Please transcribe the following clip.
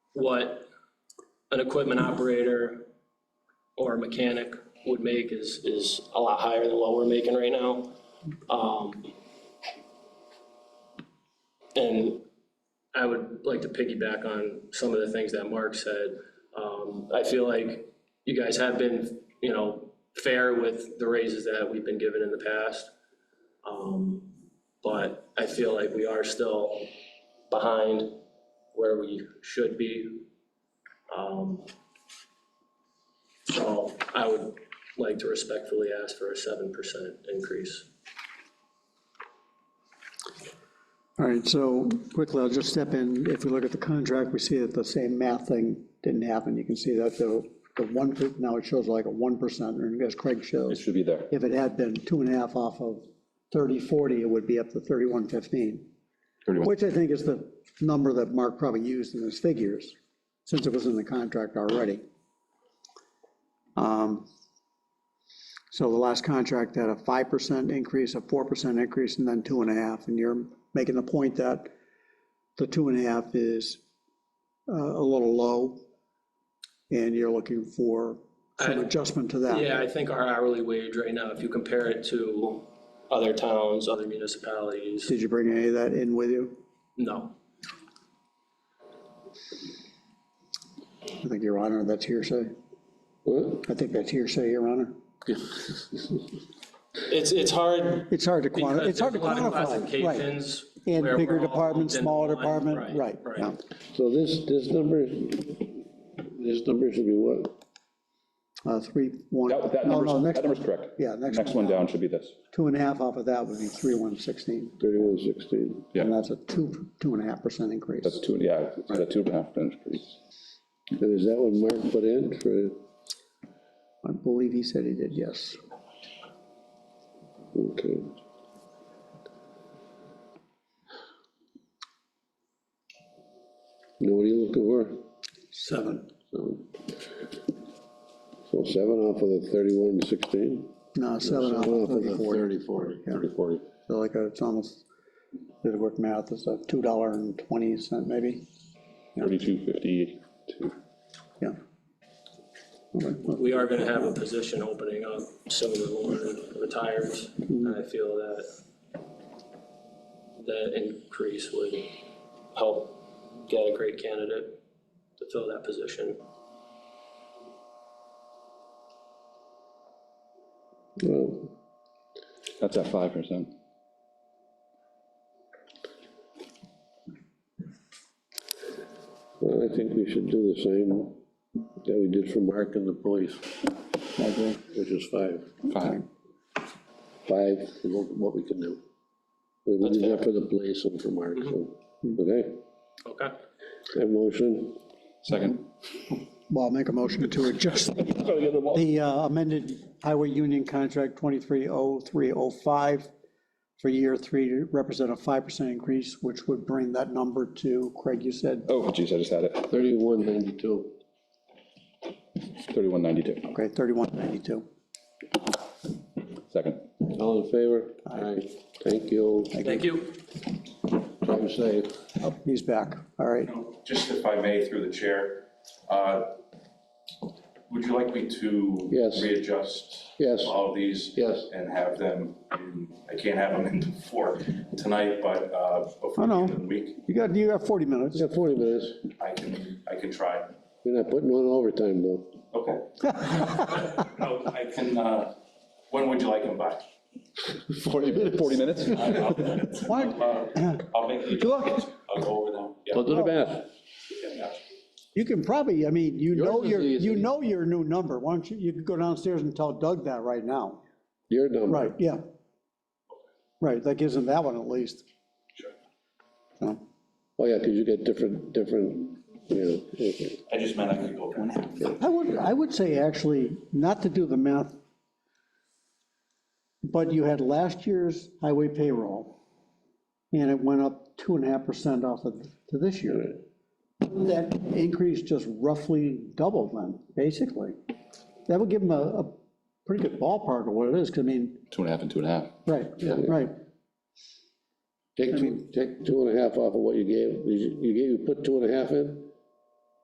what an equipment operator or a mechanic would make is, is a lot higher than what we're making right now. Um, And I would like to piggyback on some of the things that Mark said. Um, I feel like you guys have been, you know, fair with the raises that we've been given in the past. Um, But I feel like we are still behind where we should be. Um, So I would like to respectfully ask for a seven percent increase. All right, so quickly, I'll just step in. If we look at the contract, we see that the same math thing didn't happen. You can see that the, the one, per- now it shows like a 1%, and as Craig It shows, should be there. if it had been two and a half off of 30, 40, it would be up to 31, 15, 31. which I think is the number that Mark probably used in his figures, since it was in the contract already. Um, So the last contract had a 5% increase, a 4% increase, and then two and a half. And you're making the point that the two and a half is uh, a little low, and you're looking for some I- adjustment to that. Yeah, I think our hourly wage right now, if you compare it to other towns, other municipalities, Did you bring any of that in with you? no. I think, Your Honor, that's hearsay. What? I think that's hearsay, Your Honor. It's, it's hard. It's hard to because quantify, it's hard to there's a lot of quantify, right. Classifications. In where bigger we're all department, lumped into smaller one, department, right, yeah. So this, this number, this number should be what? Uh, Three, one, That, that no, no, number's, next, that number's correct. yeah, next Next one one down should be this. two and a half off of that would be three, one, sixteen. Thirty-one sixteen. Yeah. And that's a two, two and a half percent increase. That's two, yeah, it's a two and a half inch increase. And is that what Mark put in for, I believe he said he did, yes. okay. Now, what are you looking for? Seven. So so seven off of the thirty-one sixteen? No, seven off of thirty-four, Thirty, forty. Thirty, forty. so like, a- it's almost, did it work math, it's a two dollar and twenty cent maybe, Thirty-two, fifty-two. yeah. Okay, well, We are gonna have a position opening up soon when Lauren retires, and I feel that that increase would help get a great candidate to fill that position. Well, That's at five percent. well, I think we should do the same that we did for Mark and the police, I agree. which is five. Five. five, and what what we can do. We will do that for the police and for Mark, so, Mm-hmm. okay? Okay, That motion, Second. Well, I'll make a motion to adjust the uh, amended highway union contract 230305 for year three to represent a 5% increase, which would bring that number to, Craig, you said, Oh, geez, I just had it. thirty-one ninety-two. Thirty-one ninety-two. okay, 3192. Second. All in favor? Aye. Thank you. thank you. Drive safe. He's back, all right. Just if I may, through the chair, uh, would you like me to? Yes. Readjust? Yes. All of these? Yes. And have them, in- I can't have them in before tonight, but uh, Oh, before the no. end of the week, You got, you got 40 minutes. You got forty minutes. I can, I can try. You're not putting on overtime, though. Okay. No, I can, uh, when would you like them by? Forty minutes. Forty minutes? Why- Uh, I'll make, the- Look, I'll go over them. Yeah, I'll do the math. yeah. you can probably, I mean, you know Yours is your, easy. you know your new number, why don't you, you could go downstairs and tell Doug that right now. Your number. Right, yeah. Right, that gives him that one at least. Sure. So, Oh, yeah, because you get different, different, you know, okay. I just meant I could go. I would, I would say actually, not to do the math, but you had last year's highway payroll, and it went up two and a half percent off of, to this year. That increase just roughly doubled then, basically. That would give them a, a pretty good ballpark of what it is, 'cause I mean, Two and a half and two and a half. right, right, Take two, take two and a half off of what you gave. You you gave, you put two and a half in?